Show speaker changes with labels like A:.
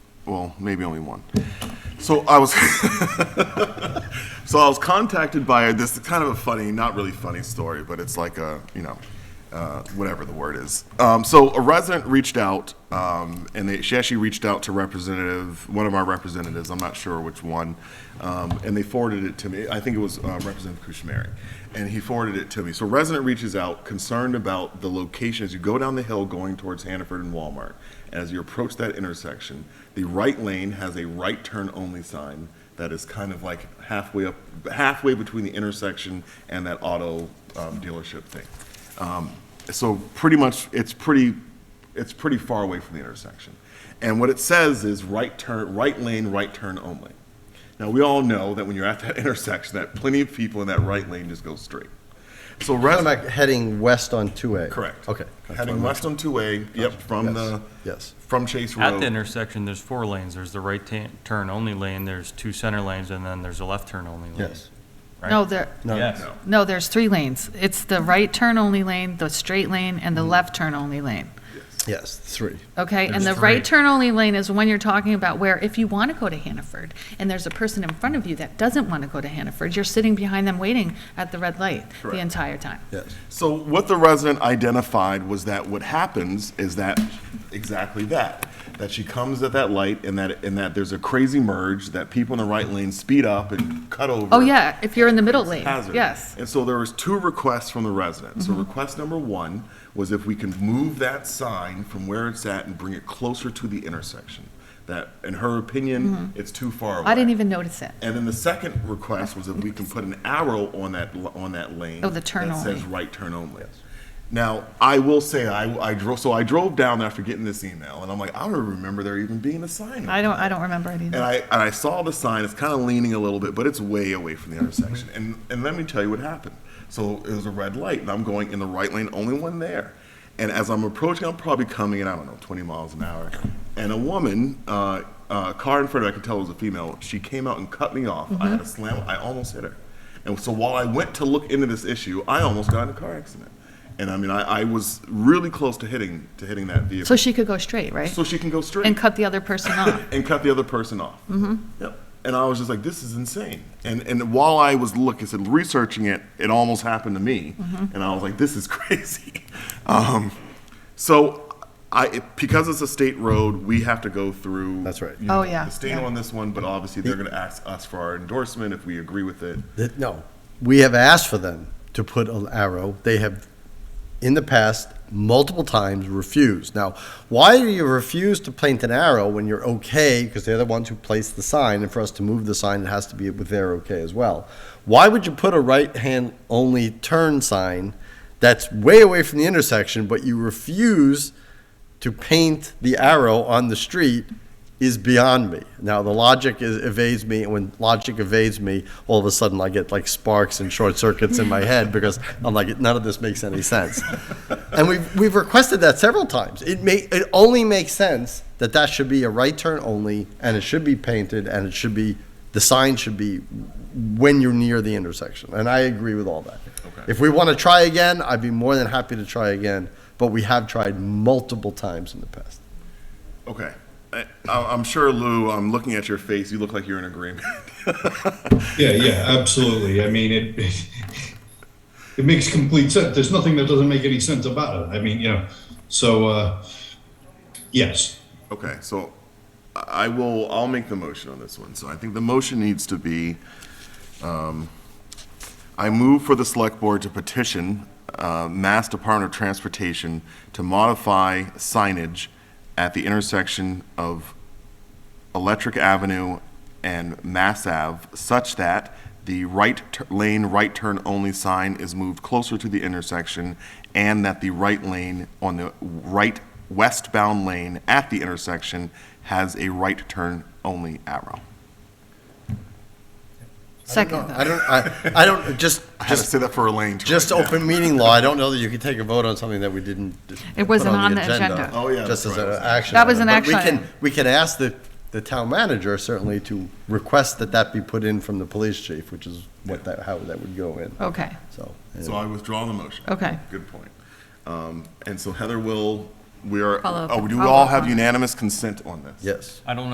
A: well, maybe only one. So I was, so I was contacted by this kind of a funny, not really funny story, but it's like a, you know, uh, whatever the word is. Um, so a resident reached out, um, and they, she actually reached out to representative, one of our representatives, I'm not sure which one, um, and they forwarded it to me. I think it was uh, Representative Kushmeri, and he forwarded it to me. So resident reaches out, concerned about the location as you go down the hill going towards Hannaford and Walmart. As you approach that intersection, the right lane has a right turn only sign that is kind of like halfway up, halfway between the intersection and that auto um, dealership thing. Um, So pretty much, it's pretty, it's pretty far away from the intersection. And what it says is right turn, right lane, right turn only. Now, we all know that when you're at that intersection, that plenty of people in that right lane just go straight. So
B: I'm
A: res-
B: not heading west on 2A.
A: Correct.
B: Okay.
A: Heading west on two A, yep, from
B: Yes,
A: the,
B: yes.
A: from Chase Road.
C: At the intersection, there's four lanes. There's the right ta- turn only lane, there's two center lanes, and then there's a left turn only lane.
B: Yes.
C: Right?
D: No, there,
B: No.
C: Yes.
D: no, there's three lanes. It's the right turn only lane, the straight lane,
A: Mm-hmm.
D: and the left turn only lane.
B: Yes, three.
D: Okay, and the
C: There's three.
D: right turn only lane is when you're talking about where if you want to go to Hannaford and there's a person in front of you that doesn't want to go to Hannaford, you're sitting behind them waiting at the red light the
A: Correct.
D: entire time.
B: Yes.
A: So what the resident identified was that what happens is that exactly that. That she comes at that light and that and that there's a crazy merge that people in the right lane speed up and cut over.
D: Oh, yeah, if you're in the middle lane,
A: Hazard.
D: yes. Mm-hmm.
A: And so there was two requests from the residents. So request number one was if we can move that sign from where it's at and bring it closer to the intersection. That, in her opinion, it's too far away.
D: Mm-hmm. I didn't even notice it.
A: And then the second request was if we can put an arrow on that, l- on that lane.
D: Oh, the turn
A: That says
D: only.
A: right turn only. Now, I will say, I, I drove, so I drove down after getting this email, and I'm like, I don't remember there even being a sign.
D: I don't, I don't remember it
A: And
D: either.
A: I, and I saw the sign, it's kind of leaning a little bit, but it's way away from the
D: Mm-hmm.
A: intersection. And, and let me tell you what happened. So it was a red light, and I'm going in the right lane, only one there. And as I'm approaching, I'm probably coming in, I don't know, 20 miles an hour. And a woman, uh, uh, car in front of me, I could tell it was a female, she came out and cut me off. I had
D: Mm-hmm.
A: a slam, I almost hit her. And so while I went to look into this issue, I almost got in a car accident. And I mean, I, I was really close to hitting, to hitting that vehicle.
D: So she could go straight, right?
A: So she can go straight
D: And cut the other person off.
A: and cut the other person off. Mm-hmm. Yep. And I was just like, this is insane. And and while I was looking, I said researching it, it almost happened to me,
D: Mm-hmm.
A: and I was like, this is crazy. Um, so. I, it- because it's a state road, we have to go through.
B: That's right.
A: you
D: Oh,
A: know,
D: yeah,
A: The state
D: yeah.
A: on this one, but obviously they're going to ask us for our endorsement if we agree with it.
B: That- No, we have asked for them to put an arrow. They have, in the past, multiple times refused. Now, why do you refuse to plant an arrow when you're okay, because they're the ones who placed the sign, and for us to move the sign, it has to be with their okay as well? Why would you put a right-hand only turn sign that's way away from the intersection, but you refuse to paint the arrow on the street is beyond me. Now, the logic is, evades me, and when logic evades me, all of a sudden I get like sparks and short circuits in my head because I'm like, none of this makes any sense. and we've, we've requested that several times. It, may, it only makes sense that that should be a right turn only, and it should be painted, and it should be, the sign should be when you're near the intersection. And I agree with all that.
A: Okay.
B: If we want to try again, I'd be more than happy to try again, but we have tried multiple times in the past.
A: Okay. I, I- I'm sure, Lou, I'm looking at your face. You look like you're in agreement.
E: Yeah, yeah, absolutely. I mean, it, it makes complete sense. There's nothing that doesn't make any sense about it. I mean, you know, so, uh, yes.
A: Okay, so I I will, I'll make the motion on this one. So I think the motion needs to be, um, I move for the select board to petition, uh, Mass Department of Transportation to modify signage at the intersection of Electric Avenue and Mass Ave such that the right tu- lane, right turn only sign is moved closer to the intersection and that the right lane on the right westbound lane at the intersection has a right turn only arrow.
D: Second,
B: I
D: though.
B: don't, I, I don't, just,
A: I had to
B: just,
A: say that for a lane. to
B: just
A: write down.
B: open meeting law, I don't know that you could take a vote on something that we didn't.
D: It wasn't on the agenda.
A: Oh, yeah,
B: Just
A: that's
B: as an
A: right.
B: action.
D: That was an
B: item. But
D: action
B: We can,
D: item.
B: we can ask the, the town manager certainly to request that that be put in from the police chief, which is what that, how that would go in,
D: okay,
B: so.
A: So I withdraw the motion.
D: Okay.
A: Good point. Um, and so Heather will, we are,
D: Follow up-
A: oh, do we
D: follow
A: all
D: up
A: have
D: on it.
A: unanimous consent on this?
B: Yes.
C: I don't know